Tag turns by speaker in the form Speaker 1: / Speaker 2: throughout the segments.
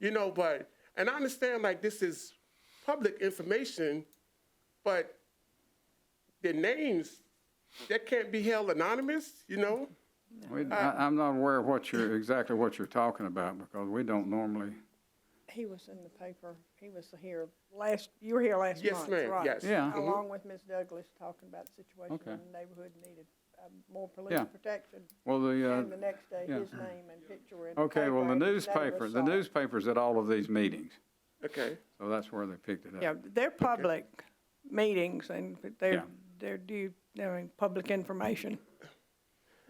Speaker 1: You know, but and I understand like this is public information, but their names that can't be held anonymous. You know,
Speaker 2: We, I, I'm not aware of what you're, exactly what you're talking about, because we don't normally,
Speaker 3: He was in the paper, he was here last, you were here last
Speaker 1: Yes,
Speaker 3: month,
Speaker 1: ma'am.
Speaker 3: right?
Speaker 1: Yes.
Speaker 2: Yeah.
Speaker 3: Along with Ms. Douglas, talking about the situation
Speaker 2: Okay.
Speaker 3: in the neighborhood needed um, more police
Speaker 2: Yeah.
Speaker 3: protection.
Speaker 2: well, the, uh.
Speaker 3: And the next day,
Speaker 2: yeah.
Speaker 3: his name and picture were in the paper.
Speaker 2: Okay, well, the
Speaker 3: and none of us
Speaker 2: newspaper, the
Speaker 3: saw it.
Speaker 2: newspaper's at all of these meetings,
Speaker 1: okay.
Speaker 2: so that's where they picked it up.
Speaker 3: Yeah, they're public meetings and they're,
Speaker 2: Yeah.
Speaker 3: they're due, they're in public information.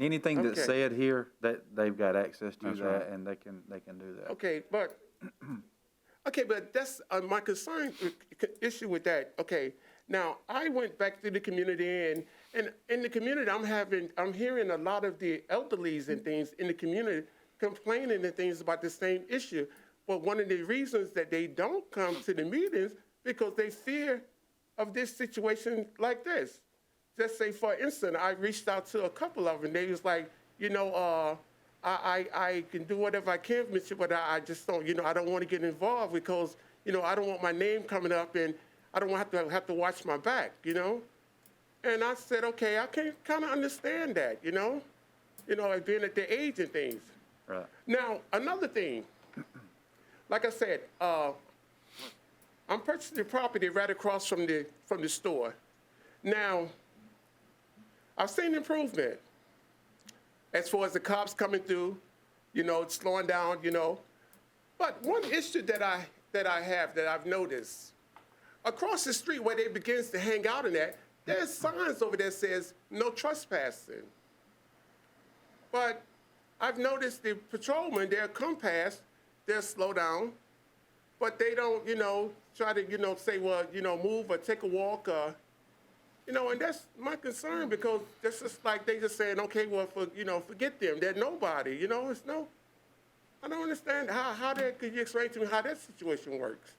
Speaker 4: Anything that's
Speaker 1: Okay.
Speaker 4: said here, that they've got access to
Speaker 2: That's right.
Speaker 4: that and they can, they can do that.
Speaker 1: Okay, but, okay, but that's, uh, my concern, uh, issue with that, okay. Now, I went back to the community and, and in the community, I'm having, I'm hearing a lot of the elderlies and things in the community complaining and things about the same issue. But one of the reasons that they don't come to the meetings because they fear of this situation like this. Just say, for instance, I reached out to a couple of them, they was like, you know, uh, I, I, I can do whatever I can, Mr., but I, I just don't, you know, I don't want to get involved because, you know, I don't want my name coming up and I don't want to have to, have to watch my back, you know? And I said, okay, I can kind of understand that, you know? You know, like being at their age and things.
Speaker 4: Right.
Speaker 1: Now, another thing, like I said, uh, I'm purchasing the property right across from the, from the store. Now, I've seen improvement as far as the cops coming through, you know, slowing down, you know. But one issue that I that I have that I've noticed across the street where they begins to hang out in that, there's signs over there says no trespassing. But I've noticed the patrolmen, they'll come past, they'll slow down, but they don't, you know, try to, you know, say, well, you know, move or take a walk or you know, and that's my concern because that's just like they just saying, okay, well, for, you know, forget them. They're nobody. You know, it's no. I don't understand how how that could you explain to me how that situation works.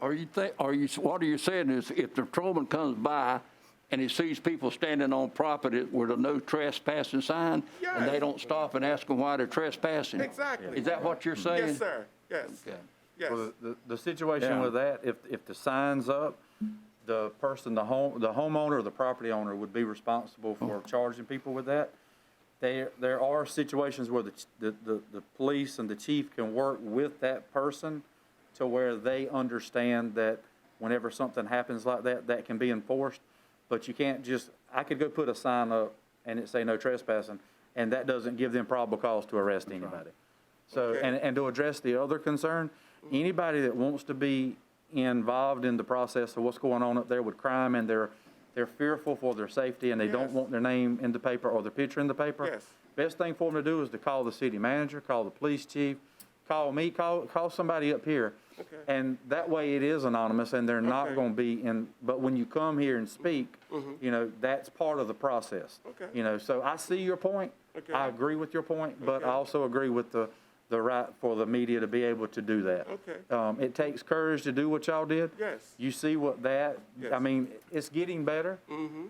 Speaker 5: Are you think, are you, what are you saying is if the patrolman comes by and he sees people standing on property with a no trespassing sign, and
Speaker 1: Yes.
Speaker 5: they don't stop and ask them why they're trespassing?
Speaker 1: Exactly.
Speaker 5: Is that what you're saying?
Speaker 1: Yes, sir. Yes.
Speaker 5: Okay.
Speaker 1: Yes.
Speaker 4: Well, the, the- the situation
Speaker 2: Yeah.
Speaker 4: with that, if, if the sign's up, the person, the home, the homeowner or the property owner would be responsible
Speaker 2: Oh.
Speaker 4: for charging people with that. There, there are situations where the, ch- the, the, the police and the chief can work with that person to where they understand that whenever something happens like that, that can be enforced. But you can't just, I could go put a sign up and it say no trespassing, and that doesn't give them probable cause to arrest anybody. So, and, and to address the other concern, anybody that wants to be involved in the process of what's going on up there with crime and they're, they're fearful for their safety and they
Speaker 1: Yes.
Speaker 4: don't want their name in the paper or their picture in the paper.
Speaker 1: Yes.
Speaker 4: Best thing for them to do is to call the city manager, call the police chief, call me, call, call somebody up here.
Speaker 1: Okay.
Speaker 4: And that way it is anonymous and they're
Speaker 1: Okay. Mm-hmm.
Speaker 4: not gonna be in, but when you come here and speak, you know, that's part of the process.
Speaker 1: Okay.
Speaker 4: You know, so I see your point.
Speaker 1: Okay.
Speaker 4: I agree with your point, but
Speaker 1: Okay.
Speaker 4: I also agree with the, the right for the media to be able to do that.
Speaker 1: Okay.
Speaker 4: Um, it takes courage to do what y'all did.
Speaker 1: Yes.
Speaker 4: You see what that, I
Speaker 1: Yes. Mm-hmm.
Speaker 4: mean, it's getting better.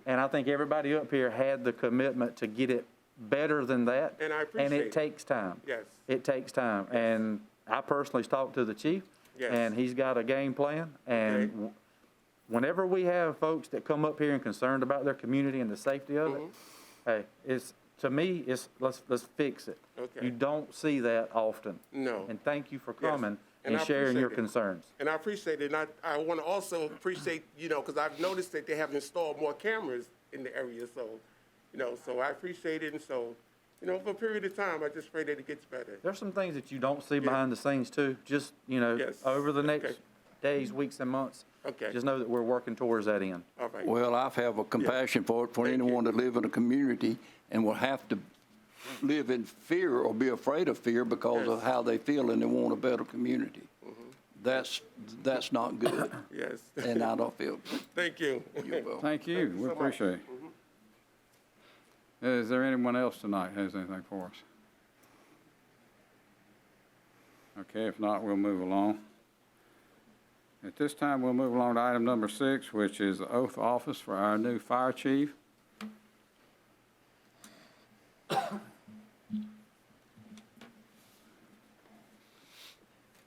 Speaker 4: And I think everybody up here had the commitment to get it better than that.
Speaker 1: And I
Speaker 4: And
Speaker 1: appreciate it.
Speaker 4: it takes time.
Speaker 1: Yes.
Speaker 4: It takes time. And I personally talked to the chief.
Speaker 1: Yes.
Speaker 4: And he's got a game plan.
Speaker 1: Okay.
Speaker 4: And w- whenever we have folks that come up here and concerned about their community and the safety of it,
Speaker 1: Mm-hmm.
Speaker 4: hey, it's, to me, it's, let's, let's fix it.
Speaker 1: Okay.
Speaker 4: You don't see that often.
Speaker 1: No.
Speaker 4: And thank you for coming
Speaker 1: And
Speaker 4: and
Speaker 1: I
Speaker 4: sharing your
Speaker 1: appreciate it.
Speaker 4: concerns.
Speaker 1: and I appreciate it. And I, I want to also appreciate, you know, because I've noticed that they have installed more cameras in the area. So, you know, so I appreciate it. And so, you know, for a period of time, I just pray that it gets better.
Speaker 4: There's some things that you don't see behind the scenes too, just, you know,
Speaker 1: Yes.
Speaker 4: over the
Speaker 1: Okay.
Speaker 4: next days, weeks and months.
Speaker 1: Okay.
Speaker 4: Just know that we're working towards that end.
Speaker 1: All right.
Speaker 5: Well, I have a compassion for it, for
Speaker 1: Thank you.
Speaker 5: anyone that live in a community and will have to live in fear or be afraid of fear because of
Speaker 1: Yes. Mm-hmm.
Speaker 5: how they feel and they want a better community. That's, that's not good,
Speaker 1: yes.
Speaker 5: and I don't feel,
Speaker 1: Thank you.
Speaker 5: you're welcome.
Speaker 2: Thank you, we
Speaker 1: so much.
Speaker 2: appreciate it. Is there anyone else tonight has anything for us? Okay, if not, we'll move along. At this time, we'll move along to item number six, which is the oath of office for our new fire chief.